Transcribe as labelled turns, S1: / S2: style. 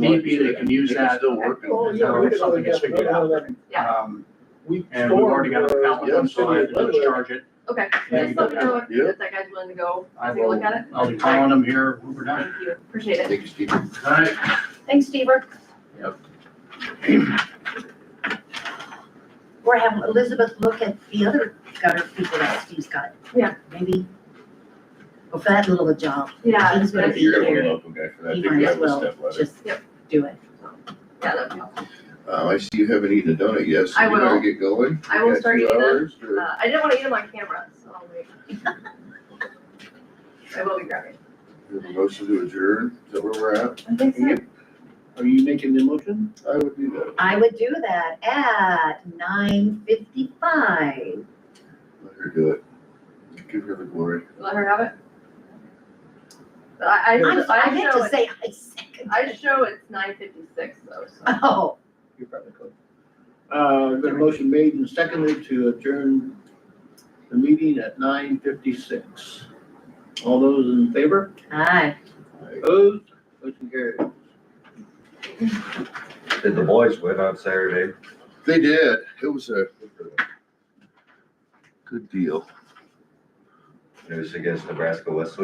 S1: Need be, they can use that.
S2: Still working.
S3: Oh, yeah, we
S1: If
S3: can
S1: Something gets
S3: always
S1: figured
S3: have
S1: out.
S3: that.
S4: Yeah.
S1: Um,
S3: We
S1: And we've already got a
S3: stormed,
S1: pallet
S3: uh,
S1: one, so I have
S3: City
S1: to
S3: of
S1: discharge it.
S4: Okay,
S1: Yeah,
S4: just let me know if
S2: yeah.
S4: if that guy's willing to go
S1: I
S4: take a look
S1: will,
S4: at it.
S1: I'll be calling them here when we're done.
S4: Thank you, appreciate it.
S2: Thank you, Steve.
S1: All right,
S4: Thanks, Steve.
S5: Or have Elizabeth look at the other gutter people that Steve's got.
S4: Yeah.
S5: Maybe. Well, for that little a job,
S4: Yeah,
S5: He's
S4: that's
S5: gonna
S4: good.
S5: be-
S4: Yeah,
S2: You're gonna want a local guy for that. I
S5: you
S2: think we
S5: might as
S2: have a
S5: well
S2: step ladder.
S5: just
S4: Yep.
S5: do it.
S4: that'd be awesome.
S2: Uh, I see you haven't eaten a donut yet, so
S4: I
S2: you better
S4: will.
S2: get going.
S4: I will
S2: You got
S4: start
S2: two
S4: eating them.
S2: hours, or-
S4: Uh, I didn't wanna eat them on camera, so I'll wait. I will be grabbing.
S2: we have a Motion to adjourn, is that where we're at?
S4: I think so.
S3: Are you making the motion?
S2: I would do that.
S5: I would do that at nine fifty-five.
S2: Let her do it. Give her the glory.
S4: Let her have it. But I,
S5: I'm,
S4: I,
S5: I
S4: I
S5: meant
S4: show
S5: to
S4: it,
S5: say I second.
S4: I show it's nine fifty-six though, so.
S5: Oh,
S3: You probably could. Uh, the motion made and seconded to adjourn the meeting at nine fifty-six. All those in favor?
S5: aye.
S3: Opposed? Motion carried.
S6: Did the boys win on Saturday?
S2: They did. It was a good deal.
S6: It was against Nebraska Wesleyan.